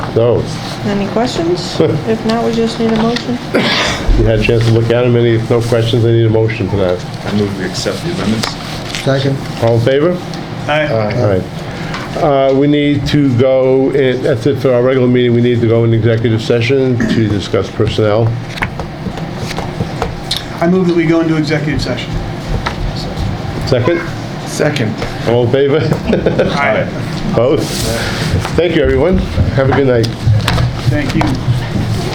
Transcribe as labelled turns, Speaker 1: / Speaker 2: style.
Speaker 1: No,
Speaker 2: Any questions? If not, we just need a motion.
Speaker 1: you had a chance to look at them, any, no questions, I need a motion for that.
Speaker 3: I move we accept the amendments.
Speaker 4: Second.
Speaker 1: All in favor?
Speaker 3: Aye.
Speaker 1: All right. Uh, We need to go, in- that's it for our regular meeting, we need to go in executive session to discuss personnel.
Speaker 5: I move that we go into executive session.
Speaker 1: Second,
Speaker 3: Second.
Speaker 1: all in favor?
Speaker 5: Aye.
Speaker 1: Opposed? Thank you, everyone. Have a good night.
Speaker 5: Thank you.